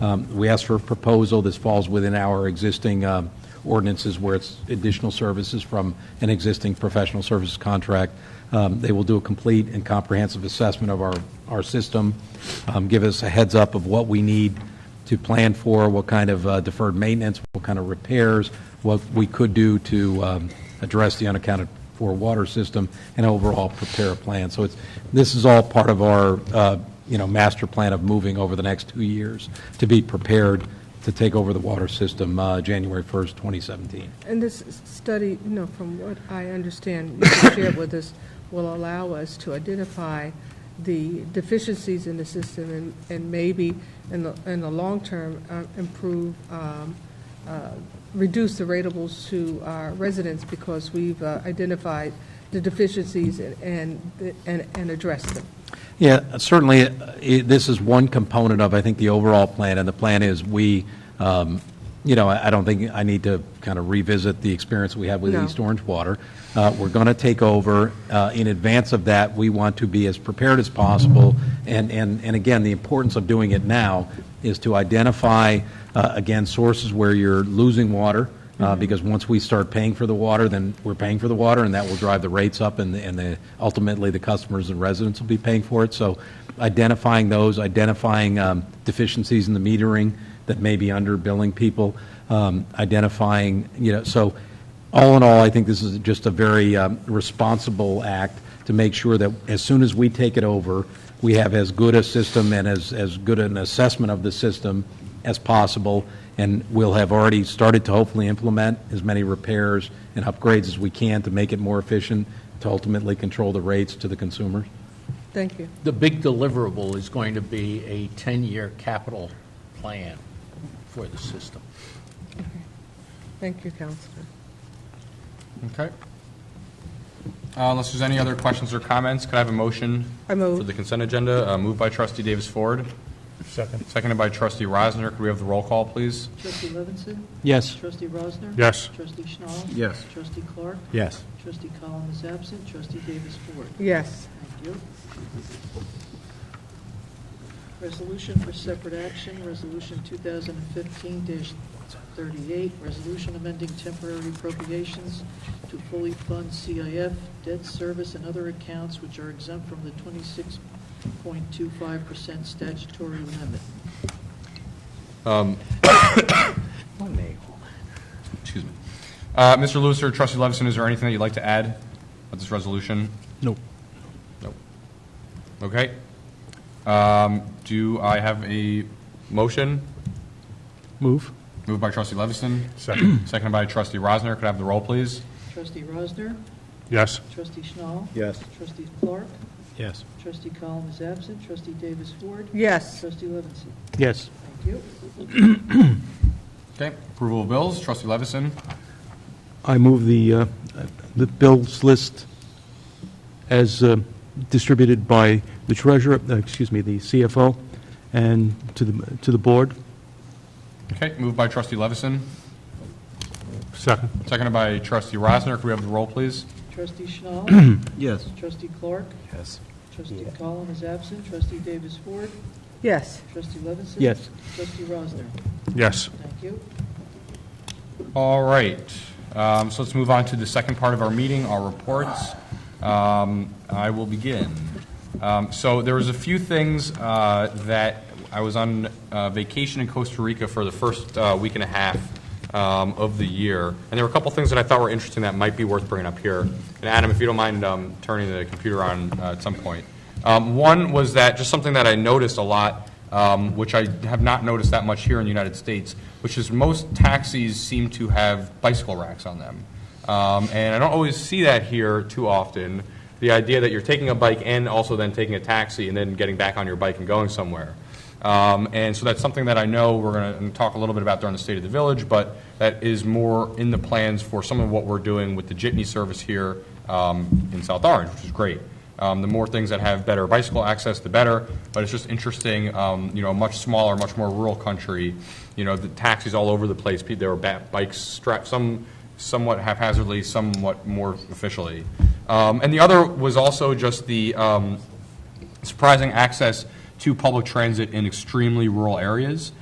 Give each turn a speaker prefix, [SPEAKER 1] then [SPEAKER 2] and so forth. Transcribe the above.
[SPEAKER 1] Um, We asked for a proposal. This falls within our existing um, ordinances where it's additional services from an existing professional services contract. Um, They will do a complete and comprehensive assessment of our, our system, um, give us a heads up of what we need to plan for, what kind of uh, deferred maintenance, what kind of repairs, what we could do to um, address the unaccounted-for water system, and overall prepare a plan. So it's, this is all part of our, uh, you know, master plan of moving over the next two years to be prepared to take over the water system uh, January 1st, 2017.
[SPEAKER 2] And this s- study, you know, from what I understand, you shared with us, will allow us to identify the deficiencies in the system and, and maybe in the, in the long term, uh, improve, um, uh, reduce the ratables to our residents because we've uh, identified the deficiencies and- and, and, and addressed them.
[SPEAKER 1] Yeah, certainly, uh, i- this is one component of, I think, the overall plan, and the plan is we, um, you know, I I don't think I need to kind of revisit the experience we had with
[SPEAKER 2] No.
[SPEAKER 1] East Orange Water. Uh, We're going to take over. Uh, In advance of that, we want to be as prepared as possible, and, and, and again, the importance of doing it now is to identify, uh, again, sources where you're losing water, uh, because once we start paying for the water, then we're paying for the water, and that will drive the rates up, and, and the- ultimately, the customers and residents will be paying for it. So identifying those, identifying um, deficiencies in the metering that may be underbilling people, um, identifying, you know, so all in all, I think this is just a very um, responsible act to make sure that as soon as we take it over, we have as good a system and as, as good an assessment of the system as possible, and we'll have already started to hopefully implement as many repairs and upgrades as we can to make it more efficient, to ultimately control the rates to the consumers.
[SPEAKER 2] Thank you.
[SPEAKER 3] The big deliverable is going to be a 10-year capital plan for the system.
[SPEAKER 2] Thank you, Counselor.
[SPEAKER 4] Okay. Uh, Unless there's any other questions or comments, could I have a motion?
[SPEAKER 2] I move.
[SPEAKER 4] For the consent agenda, Uh, moved by trustee Davis Ford. Second. Seconded by trustee Reisner. Could we have the roll call, please?
[SPEAKER 5] Trustee Levinson?
[SPEAKER 1] Yes.
[SPEAKER 5] Trustee Rosner?
[SPEAKER 6] Yes.
[SPEAKER 5] Trustee Schnall?
[SPEAKER 4] Yes.
[SPEAKER 5] Trustee Clark?
[SPEAKER 6] Yes.
[SPEAKER 5] Trustee Collins is absent. Trustee Davis Ford?
[SPEAKER 2] Yes.
[SPEAKER 5] Thank you. Resolution for separate action, Resolution 2015-38, resolution amending temporary appropriations to fully fund CIF, debt service, and other accounts which are exempt from the 26.25% statutory limit.
[SPEAKER 4] Excuse me. Uh, Mr. Lewis or trustee Levinson, is there anything that you'd like to add about this resolution?
[SPEAKER 6] Nope.
[SPEAKER 4] Nope. Okay. Um, Do I have a motion?
[SPEAKER 6] Move.
[SPEAKER 4] Moved by trustee Levinson. Second. Seconded by trustee Reisner. Could I have the roll, please?
[SPEAKER 5] Trustee Rosner?
[SPEAKER 6] Yes.
[SPEAKER 5] Trustee Schnall?
[SPEAKER 6] Yes.
[SPEAKER 5] Trustee Clark?
[SPEAKER 6] Yes.
[SPEAKER 5] Trustee Collins is absent. Trustee Davis Ward?
[SPEAKER 2] Yes.
[SPEAKER 5] Trustee Levinson?
[SPEAKER 6] Yes.
[SPEAKER 5] Thank you.
[SPEAKER 4] Okay. Approval of bills, trustee Levinson.
[SPEAKER 6] I move the, uh, the bills list as uh, distributed by the treasurer, uh, excuse me, the CFO, and to the, to the board.
[SPEAKER 4] Okay. Moved by trustee Levinson.
[SPEAKER 6] Second.
[SPEAKER 4] Seconded by trustee Reisner. Could we have the roll, please?
[SPEAKER 5] Trustee Schnall?
[SPEAKER 6] Yes.
[SPEAKER 5] Trustee Clark?
[SPEAKER 6] Yes.
[SPEAKER 5] Trustee Collins is absent. Trustee Davis Ward?
[SPEAKER 2] Yes.
[SPEAKER 5] Trustee Levinson?
[SPEAKER 6] Yes.
[SPEAKER 5] Trustee Rosner?
[SPEAKER 6] Yes.
[SPEAKER 5] Thank you.
[SPEAKER 4] All right. Um, So let's move on to the second part of our meeting, our reports. Um, I will begin. Um, So there was a few things uh, that, I was on uh, vacation in Costa Rica for the first uh, week and a half um, of the year, and there were a couple things that I thought were interesting that might be worth bringing up here. And Adam, if you don't mind um, turning the computer on uh, at some point. Um, One was that, just something that I noticed a lot, um, which I have not noticed that much here in the United States, which is most taxis seem to have bicycle racks on them. Um, And I don't always see that here too often, the idea that you're taking a bike and also then taking a taxi and then getting back on your bike and going somewhere. Um, And so that's something that I know we're going to talk a little bit about during the State of the Village, but that is more in the plans for some of what we're doing with the jitney service here um, in South Orange, which is great. Um, The more things that have better bicycle access, the better, but it's just interesting, um, you know, a much smaller, much more rural country, you know, the taxis all over the place, pe- there were ba- bikes strapped, some somewhat haphazardly, somewhat more officially. Um, And the other was also just the, um, surprising access to public transit in extremely rural areas.